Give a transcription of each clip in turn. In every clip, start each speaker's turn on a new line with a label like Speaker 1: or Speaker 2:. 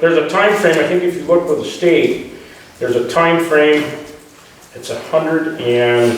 Speaker 1: There's a time frame. I think if you look with the state, there's a time frame. it's a hundred and,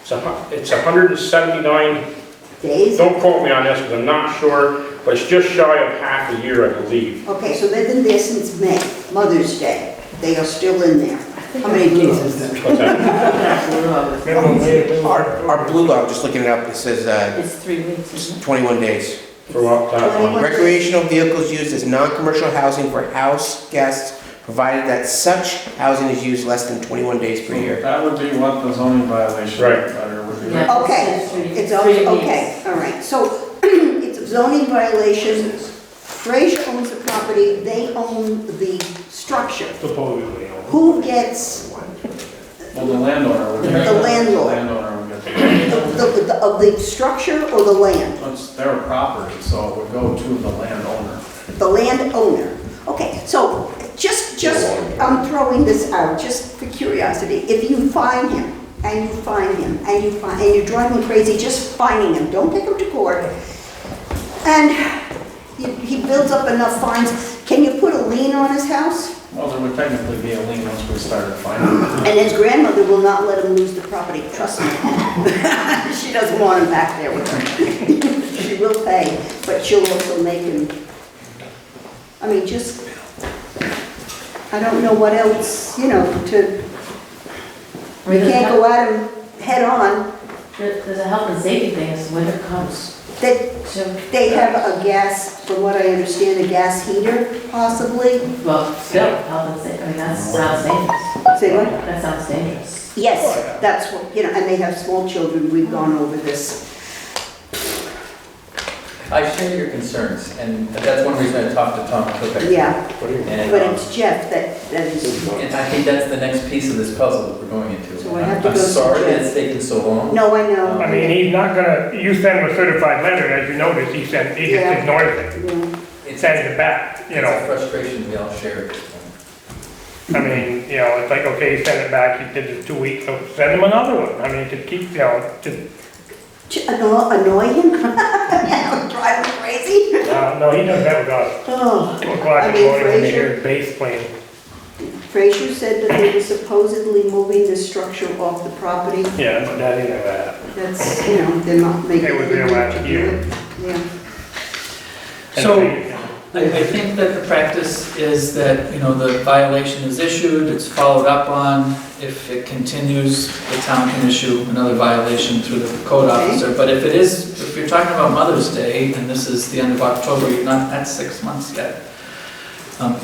Speaker 1: it's a, hu- it's a hundred and seventy-nine,
Speaker 2: days?
Speaker 1: don't quote me on this, because I'm not sure, but it's just shy of half a year, I believe.
Speaker 2: Okay, so they've been there since May, Mother's Day. They are still in there. How many days is that?
Speaker 1: What's that?
Speaker 3: Minimum wage.
Speaker 4: Our, our blue law, just looking it up, it says uh,
Speaker 5: It's three weeks,
Speaker 4: it's
Speaker 5: isn't
Speaker 4: 21 days.
Speaker 1: For what, that one?
Speaker 4: Recreational vehicles used as non-commercial housing for house guests, provided that such housing is used less than 21 days per year.
Speaker 3: That would be what the zoning violation
Speaker 1: Right.
Speaker 3: letter would be.
Speaker 5: Yeah.
Speaker 2: Okay, it's all, okay, all right. So it's a zoning violation. Frazier owns the property, they own the structure. Who gets
Speaker 3: Well, the landowner would. get
Speaker 2: The
Speaker 3: that.
Speaker 2: landlord.
Speaker 3: Landowner would get that.
Speaker 2: the- the- the- of the structure or the land?
Speaker 3: It's their property, so it would go to the landowner.
Speaker 2: The landowner. Okay, so just, just, I'm throwing this out just for curiosity. If you find him, and you find him, and you find, and you're driving crazy just finding him, don't take him to court. And he he builds up enough fines, can you put a lien on his house?
Speaker 3: Well, there would technically be a lien once we started finding.
Speaker 2: And his grandmother will not let him lose the property, trust me. She doesn't want him back there with her. She will pay, but she'll also make him, I mean, just, I don't know what else, you know, to,
Speaker 5: it?
Speaker 2: you can't go at him head-on.
Speaker 5: There- There's a health and safety thing, it's winter comes,
Speaker 2: They,
Speaker 5: so,
Speaker 2: they have a gas, from what I understand, a gas heater possibly.
Speaker 5: well, still, health and safety, I mean, that sounds dangerous.
Speaker 2: Say what?
Speaker 5: That sounds dangerous.
Speaker 2: Yes, that's what, you know, and they have small children, we've gone over this.
Speaker 6: I share your concerns, and that's one reason I talked to Tom Kopic.
Speaker 2: Yeah,
Speaker 6: And,
Speaker 2: but
Speaker 6: um,
Speaker 2: it's Jeff that, that is,
Speaker 6: and I think that's the next piece of this puzzle that we're going into.
Speaker 2: So I have to
Speaker 6: I'm
Speaker 2: go to
Speaker 6: sorry
Speaker 2: jail.
Speaker 6: that it's taken so long.
Speaker 2: no, I know.
Speaker 7: I mean, he's not gonna, you sent him a certified letter, as you noticed, he sent, he
Speaker 2: Yeah.
Speaker 7: just ignores it,
Speaker 2: Yeah.
Speaker 6: It's
Speaker 7: sends it back, you know.
Speaker 6: It's a frustration we all share at this point.
Speaker 7: I mean, you know, it's like, okay, send it back, he did it two weeks, so send him another one. I mean, to keep, you know, to,
Speaker 2: To anno- annoy him? Yeah, drive him crazy?
Speaker 7: uh, no, he does that with us.
Speaker 2: Oh,
Speaker 7: Two o'clock
Speaker 2: I
Speaker 7: in
Speaker 2: mean,
Speaker 7: the morning when they
Speaker 2: Frazier-
Speaker 7: hear his bass playing.
Speaker 2: Frazier said that they were supposedly moving the structure off the property.
Speaker 7: Yeah, but that ain't gonna happen.
Speaker 2: That's, you know, they're not making.
Speaker 7: They were there
Speaker 2: any
Speaker 7: last
Speaker 2: to
Speaker 7: year.
Speaker 2: do it. Yeah,
Speaker 7: And
Speaker 8: So-
Speaker 7: they-
Speaker 2: Oh.
Speaker 8: I, I think that the practice is that, you know, the violation is issued, it's followed up on. If it continues, the town can issue another violation through the code
Speaker 2: Okay.
Speaker 8: officer. But if it is, if you're talking about Mother's Day, and this is the end of October, you're not, that's six months yet. Um,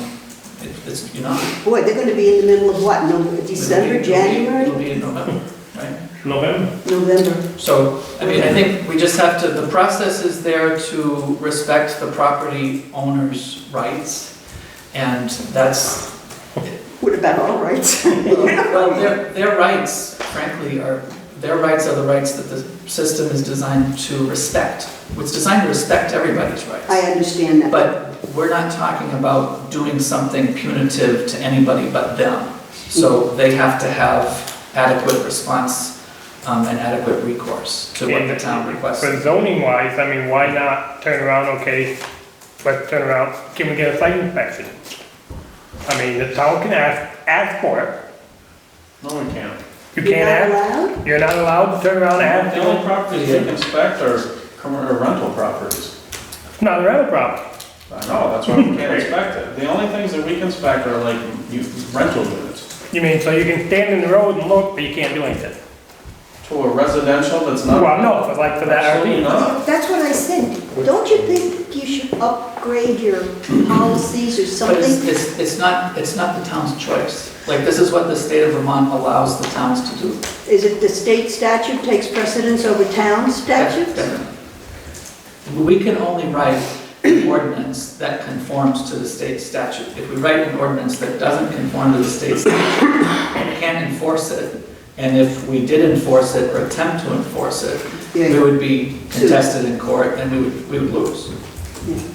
Speaker 8: it- It's, you're not.
Speaker 2: boy, they're gonna be in the middle of what, No
Speaker 8: It'll
Speaker 2: December,
Speaker 8: be- it'll be- It'll
Speaker 2: January,
Speaker 8: be in November, right?
Speaker 7: November,
Speaker 2: November?
Speaker 8: So, I mean, I think we just have to, the process is there to respect the property owner's rights, and that's,
Speaker 2: What about our rights?
Speaker 8: well, their, their rights, frankly, are, their rights are the rights that the system is designed to respect. It's designed to respect everybody's
Speaker 2: I
Speaker 8: rights.
Speaker 2: understand that.
Speaker 8: But we're not talking about doing something punitive to anybody but them. So they have to have adequate response um, and adequate recourse to what the town requests.
Speaker 7: but zoning wise, I mean, why not turn around, okay, let's turn around, can we get a site inspection? I mean, the town can ask, ask for it.
Speaker 3: No, we can't.
Speaker 7: You can't ask
Speaker 2: You're not allowed?
Speaker 7: You're not allowed to turn around and ask,
Speaker 3: The only
Speaker 7: no,
Speaker 3: properties they can inspect are commer- or rental properties.
Speaker 7: it's not a rental property.
Speaker 3: I know, that's why we can't inspect it. The only things that we can inspect are like u- rental units.
Speaker 7: You mean, so you can stand in the road and look, but you can't do anything?
Speaker 3: To a residential that's not.
Speaker 7: Well, no, for like for that
Speaker 3: Absolutely
Speaker 7: RV.
Speaker 3: not.
Speaker 2: That's what I said. Don't you think you should upgrade your policies or
Speaker 8: But it's,
Speaker 2: something?
Speaker 8: it's, it's not, it's not the town's choice. Like, this is what the state of Vermont allows the towns to do.
Speaker 2: Is it the state statute takes precedence over town statutes?
Speaker 8: We can only write an ordinance that conforms to the state statute. If we write an ordinance that doesn't conform to the state statute, we can't enforce it. And if we did enforce it or attempt to enforce it,
Speaker 2: Yeah.
Speaker 8: we would be contested in court and we would, we would lose.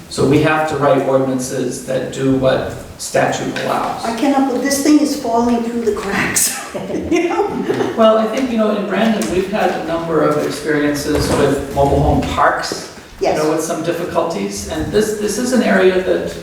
Speaker 8: So we have to write ordinances that do what statute allows.
Speaker 2: I cannot, believe this thing is falling through the cracks, you know?
Speaker 8: Well, I think, you know, in Brandon, we've had a number of experiences with mobile home parks. You know,
Speaker 2: Yes,
Speaker 8: with some difficulties, and this, this is an area that